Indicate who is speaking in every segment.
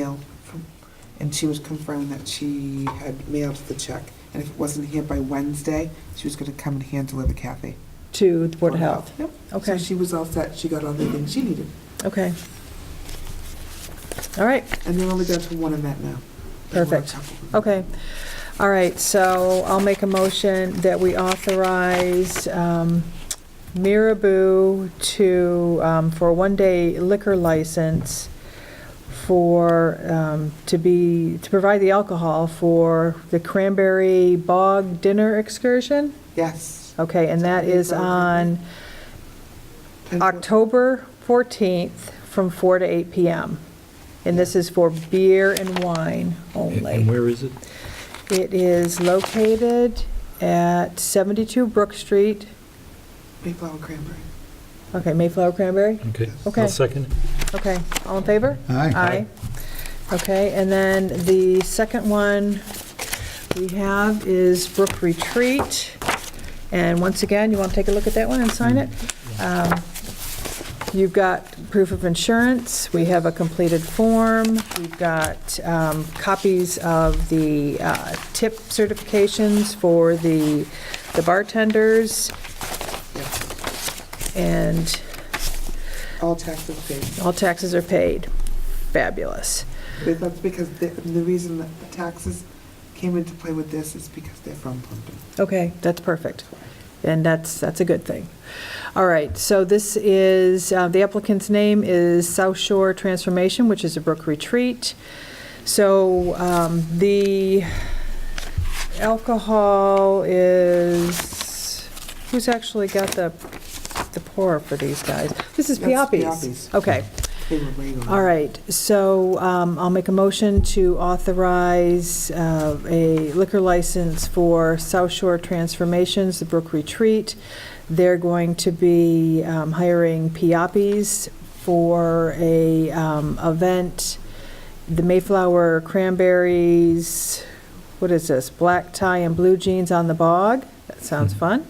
Speaker 1: mail from, and she was confirmed that she had mailed the check. And if it wasn't here by Wednesday, she was gonna come and hand deliver Kathy.
Speaker 2: to the Board of Health.
Speaker 1: Yep. So
Speaker 2: Okay,
Speaker 1: she was all set, she got all the things she needed.
Speaker 2: okay. All right,
Speaker 1: And they're only down to one event now. They want a
Speaker 2: Perfect.
Speaker 1: couple.
Speaker 2: okay. All right, so I'll make a motion that we authorize um, Mirabou to, um, for a one-day liquor license for, um, to be, to provide the alcohol for the Cranberry Bog Dinner Excursion?
Speaker 1: Yes.
Speaker 2: Okay, and that is on
Speaker 1: And-
Speaker 2: October 14th from 4 to 8 PM. And this is for beer and wine
Speaker 3: And- And
Speaker 2: only.
Speaker 3: where is it?
Speaker 2: It is located at 72 Brook Street,
Speaker 1: Mayflower cranberry.
Speaker 2: okay, Mayflower Cranberry?
Speaker 3: Okay.
Speaker 2: Okay.
Speaker 3: I'll second it.
Speaker 2: Okay, all in favor?
Speaker 4: Aye.
Speaker 2: Aye. Okay, and then the second one we have is Brook Retreat. And once again, you want to take a look at that one and sign it? Um, You've got proof of insurance, we have a completed form, we've got um, copies of the uh, tip certifications for the the bartenders,
Speaker 1: Yes.
Speaker 2: and
Speaker 1: All taxes paid.
Speaker 2: all taxes are paid. Fabulous.
Speaker 1: But that's because the, the reason that the taxes came into play with this is because they're from Plumpton.
Speaker 2: Okay, that's perfect. And that's, that's a good thing. All right, so this is, uh, the applicant's name is South Shore Transformation, which is a Brook Retreat. So um, the alcohol is, who's actually got the, the pour for these guys? This is
Speaker 1: That's
Speaker 2: Piapi's.
Speaker 1: Piapi's.
Speaker 2: Okay.
Speaker 1: They were waiting.
Speaker 2: All right, so um, I'll make a motion to authorize uh, a liquor license for South Shore Transformations, the Brook Retreat. They're going to be um, hiring Piapis for a um, event, the Mayflower Cranberries, what is this, black tie and blue jeans on the bog? That sounds fun.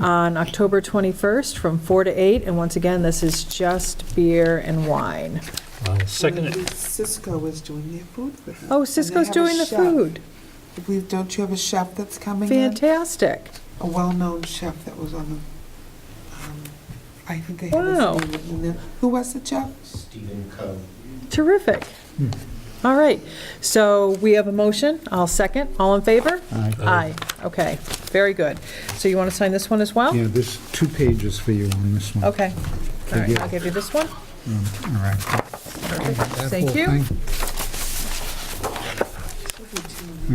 Speaker 2: On October 21st from 4 to 8, and once again, this is just beer and wine.
Speaker 3: I'll second it.
Speaker 1: Cisco is doing their food for them.
Speaker 2: Oh,
Speaker 1: And they
Speaker 2: Cisco's
Speaker 1: have a
Speaker 2: doing the
Speaker 1: chef.
Speaker 2: food.
Speaker 1: I believe, don't you have a chef that's coming in?
Speaker 2: Fantastic.
Speaker 1: a well-known chef that was on the, um, I think they had
Speaker 2: Wow.
Speaker 1: his name written in there. Who was the chef?
Speaker 5: Stephen Coe.
Speaker 2: Terrific.
Speaker 4: Hmm.
Speaker 2: All right. So we have a motion. I'll second. All in favor?
Speaker 4: Aye.
Speaker 2: Aye. Okay. Very good. So you want to sign this one as well?
Speaker 4: Yeah, there's two pages for you on this one.
Speaker 2: Okay. All right.
Speaker 4: you.
Speaker 2: I'll give you this one.
Speaker 4: All right. That
Speaker 2: Thank
Speaker 4: whole
Speaker 2: you.
Speaker 4: thing.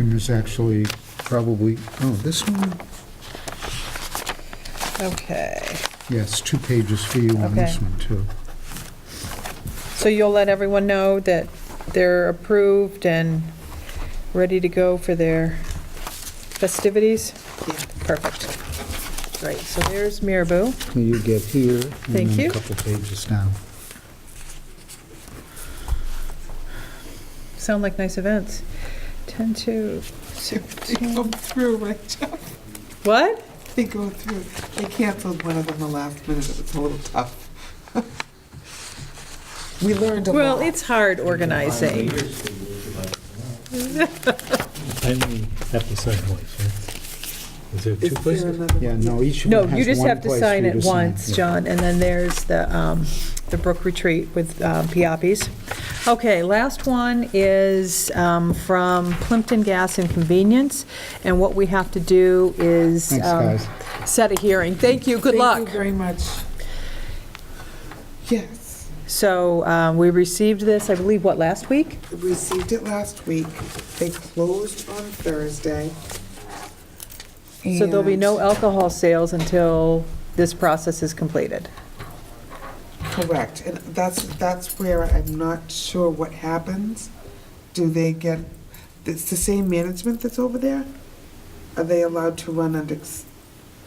Speaker 4: And there's actually probably, oh, this one?
Speaker 2: Okay.
Speaker 4: Yes, two pages for you on this
Speaker 2: Okay.
Speaker 4: one, too.
Speaker 2: So you'll let everyone know that they're approved and ready to go for their festivities?
Speaker 1: Yeah.
Speaker 2: Perfect. Great. So there's Mirabou.
Speaker 4: So you get here.
Speaker 2: Thank
Speaker 4: And then
Speaker 2: you.
Speaker 4: a couple pages down.
Speaker 2: Sound like nice events. 10 to
Speaker 1: They
Speaker 2: 16.
Speaker 1: go through, right, Jeff?
Speaker 2: What?
Speaker 1: They go through. They canceled one of them the last minute. It was a little tough. We learned a lot.
Speaker 2: Well, it's hard organizing.
Speaker 3: I only have to sign once, right? Is there
Speaker 1: Is
Speaker 3: two
Speaker 1: there
Speaker 3: places?
Speaker 1: another-
Speaker 4: Yeah, no, each
Speaker 2: No,
Speaker 4: one
Speaker 2: you
Speaker 4: has
Speaker 2: just have
Speaker 4: one
Speaker 2: to
Speaker 4: place for
Speaker 2: sign
Speaker 4: you
Speaker 2: it
Speaker 4: to
Speaker 2: once,
Speaker 4: sign.
Speaker 2: John, and then there's the, um, the Brook Retreat with uh, Piapis. Okay, last one is um, from Plimpton Gas and Convenience, and what we have to do is
Speaker 4: Thanks,
Speaker 2: um,
Speaker 4: guys.
Speaker 2: set a hearing. Thank you, good luck.
Speaker 1: Thank you very much. Yes,
Speaker 2: So um, we received this, I believe, what, last week?
Speaker 1: we received it last week. They closed on Thursday.
Speaker 2: So there'll be
Speaker 1: And-
Speaker 2: no alcohol sales until this process is completed.
Speaker 1: Correct, and that's, that's where I'm not sure what happens. Do they get, it's the same management that's over there? Are they allowed to run under s-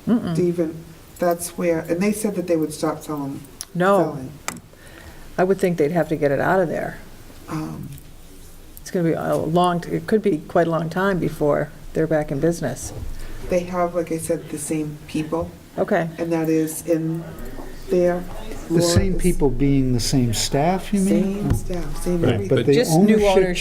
Speaker 2: Mm-mm.
Speaker 1: Stephen? That's where, and they said that they would stop selling.
Speaker 2: No,
Speaker 1: selling.
Speaker 2: I would think they'd have to get it out of there.
Speaker 1: Um,
Speaker 2: It's going to be a long, it could be quite a long time before they're back in business.
Speaker 1: They have, like I said, the same people,
Speaker 2: Okay,
Speaker 1: and that is in there.
Speaker 2: The same
Speaker 4: Laura's-
Speaker 2: people being the same staff, you mean?
Speaker 4: Same staff, same
Speaker 6: Right,
Speaker 4: everything.
Speaker 2: But the
Speaker 1: Just new
Speaker 2: ownership